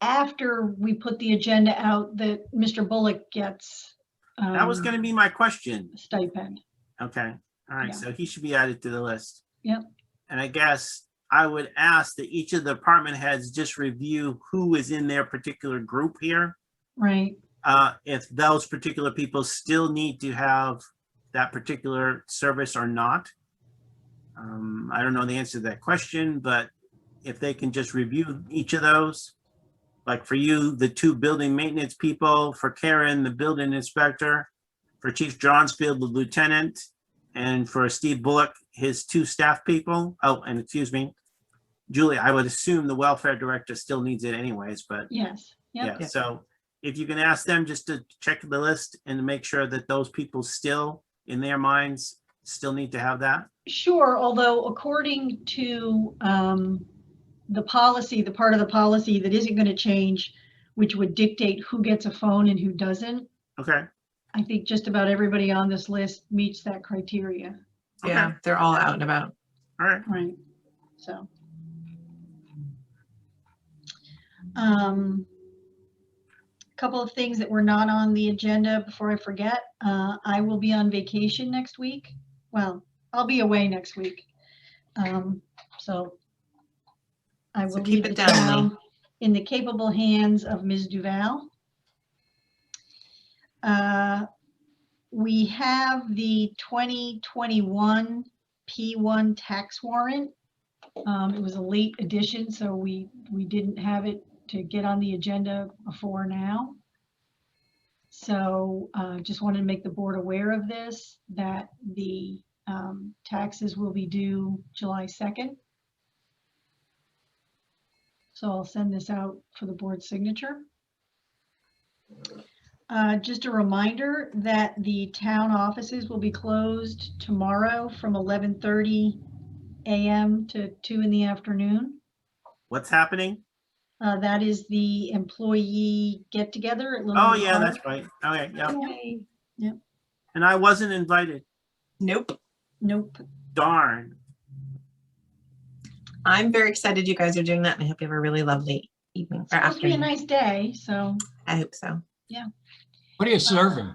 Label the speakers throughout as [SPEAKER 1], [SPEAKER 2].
[SPEAKER 1] after we put the agenda out that Mr. Bullock gets.
[SPEAKER 2] That was
[SPEAKER 1] um,
[SPEAKER 2] gonna be my question.
[SPEAKER 1] Stipend.
[SPEAKER 2] Okay,
[SPEAKER 1] Yeah.
[SPEAKER 2] all right, so he should be added to the list.
[SPEAKER 1] Yep.
[SPEAKER 2] And I guess I would ask that each of the department heads just review who is in their particular group here.
[SPEAKER 1] Right,
[SPEAKER 2] Uh, if those particular people still need to have that particular service or not. Um, I don't know the answer to that question, but if they can just review each of those. Like for you, the two building maintenance people, for Karen, the building inspector, for Chief Johnsfield, the lieutenant, and for Steve Bullock, his two staff people. Oh, and excuse me, Julie, I would assume the welfare director still needs it anyways, but
[SPEAKER 1] yes, yep,
[SPEAKER 2] yeah, so if you can ask them just to check the list and to make sure that those people still, in their minds, still need to have that.
[SPEAKER 1] sure, although according to um, the policy, the part of the policy that isn't going to change, which would dictate who gets a phone and who doesn't,
[SPEAKER 2] Okay.
[SPEAKER 1] I think just about everybody on this list meets that criteria,
[SPEAKER 2] okay,
[SPEAKER 3] Yeah, they're all out and about.
[SPEAKER 2] All right.
[SPEAKER 1] right? So. Um, Couple of things that were not on the agenda before I forget. Uh, I will be on vacation next week. Well, I'll be away next week. Um, so. I
[SPEAKER 3] So
[SPEAKER 1] will
[SPEAKER 3] keep
[SPEAKER 1] leave
[SPEAKER 3] it
[SPEAKER 1] the
[SPEAKER 3] down, Lee.
[SPEAKER 1] town in the capable hands of Ms. Duval. Uh, We have the 2021 P1 tax warrant. Um, It was a late addition, so we, we didn't have it to get on the agenda before now. So uh, just wanted to make the board aware of this, that the um, taxes will be due July 2nd. So I'll send this out for the board's signature. Uh, Just a reminder that the town offices will be closed tomorrow from 11:30 a.m. to 2 in the afternoon.
[SPEAKER 2] What's happening?
[SPEAKER 1] Uh, That is the employee get-together at Little
[SPEAKER 2] Oh,
[SPEAKER 1] Rock
[SPEAKER 3] Mm-hmm.
[SPEAKER 2] yeah, that's
[SPEAKER 1] Park.
[SPEAKER 2] right. Okay, yeah.
[SPEAKER 1] Yay.
[SPEAKER 2] And I wasn't invited.
[SPEAKER 3] Nope.
[SPEAKER 1] Nope.
[SPEAKER 2] Darn.
[SPEAKER 3] I'm very excited you guys are doing that and I hope you have a really lovely evening
[SPEAKER 1] It's
[SPEAKER 3] or
[SPEAKER 1] supposed to be a
[SPEAKER 3] afternoon.
[SPEAKER 1] nice day, so
[SPEAKER 3] I hope so.
[SPEAKER 4] What are you serving?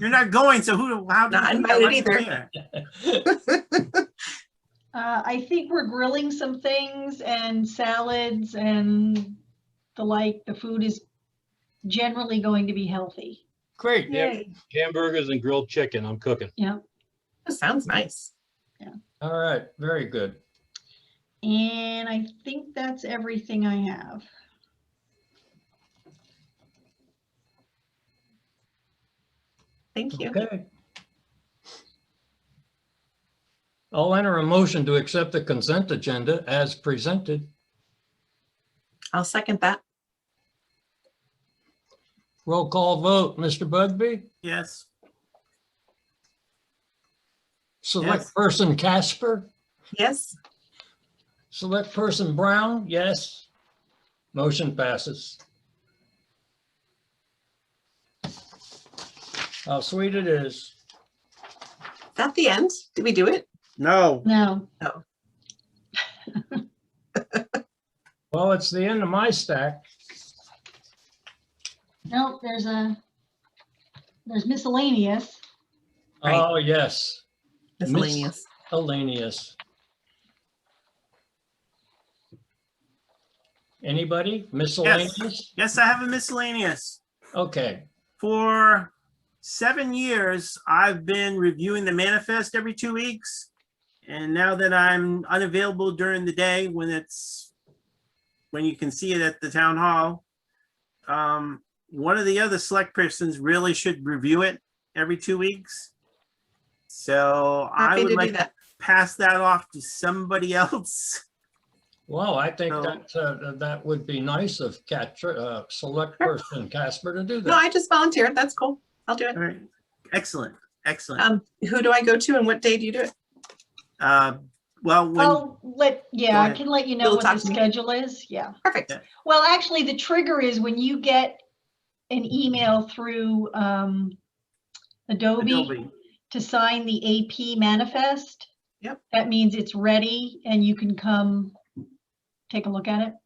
[SPEAKER 2] You're not going, so who, how? do you
[SPEAKER 3] Not
[SPEAKER 2] think I
[SPEAKER 3] invited
[SPEAKER 2] wasn't
[SPEAKER 3] either.
[SPEAKER 2] there?
[SPEAKER 1] uh, I think we're grilling some things and salads and the like. The food is generally going to be healthy.
[SPEAKER 4] Great.
[SPEAKER 3] Yay.
[SPEAKER 5] hamburgers and grilled chicken I'm cooking.
[SPEAKER 1] Yeah.
[SPEAKER 3] That Sounds nice.
[SPEAKER 4] All right. Very good.
[SPEAKER 1] And I think that's everything I have.
[SPEAKER 3] Thank you.
[SPEAKER 4] Okay. I'll enter a motion to accept the consent agenda as presented.
[SPEAKER 3] I'll second that.
[SPEAKER 4] Roll call vote. Mr. Bugby?
[SPEAKER 2] Yes. Yes.
[SPEAKER 4] Select person Casper?
[SPEAKER 3] Yes.
[SPEAKER 4] Select person Brown? Yes. Motion passes. How sweet it is.
[SPEAKER 3] Is that the end? Did we do it?
[SPEAKER 2] No.
[SPEAKER 1] Now,
[SPEAKER 4] Well, it's the end of my stack.
[SPEAKER 1] no, there's a, there's miscellaneous.
[SPEAKER 3] Right.
[SPEAKER 4] Oh, yes. Miss-
[SPEAKER 3] Miscellaneous.
[SPEAKER 4] Hellenius. Anybody miscellaneous?
[SPEAKER 2] Yes, I have a miscellaneous.
[SPEAKER 4] Okay,
[SPEAKER 2] For seven years, I've been reviewing the manifest every two weeks. And now that I'm unavailable during the day when it's, when you can see it at the town hall, um, one of the other select persons really should review it every two weeks. So I
[SPEAKER 3] Happy
[SPEAKER 2] would
[SPEAKER 3] to do
[SPEAKER 2] like to
[SPEAKER 3] that.
[SPEAKER 2] pass that off to somebody else.
[SPEAKER 4] well, I think
[SPEAKER 2] So-
[SPEAKER 4] that, uh, that would be nice of Cat, uh, select
[SPEAKER 3] Sure.
[SPEAKER 4] person Casper to do
[SPEAKER 3] No,
[SPEAKER 4] that.
[SPEAKER 3] I just volunteered. That's cool. I'll do it.
[SPEAKER 2] All right, excellent, excellent.
[SPEAKER 3] Um, who do I go to and what day do you do it?
[SPEAKER 2] Uh, well, when,
[SPEAKER 1] I'll let, yeah, I
[SPEAKER 2] ahead.
[SPEAKER 1] can let you know
[SPEAKER 3] You'll
[SPEAKER 1] what
[SPEAKER 3] talk
[SPEAKER 1] the
[SPEAKER 3] to me?
[SPEAKER 1] schedule is, yeah.
[SPEAKER 3] Perfect.
[SPEAKER 2] Yeah.
[SPEAKER 1] Well, actually, the trigger is when you get an email through um, Adobe
[SPEAKER 2] Adobe.
[SPEAKER 1] to sign the AP manifest.
[SPEAKER 3] Yep.
[SPEAKER 1] That means it's ready and you can come take a look at it.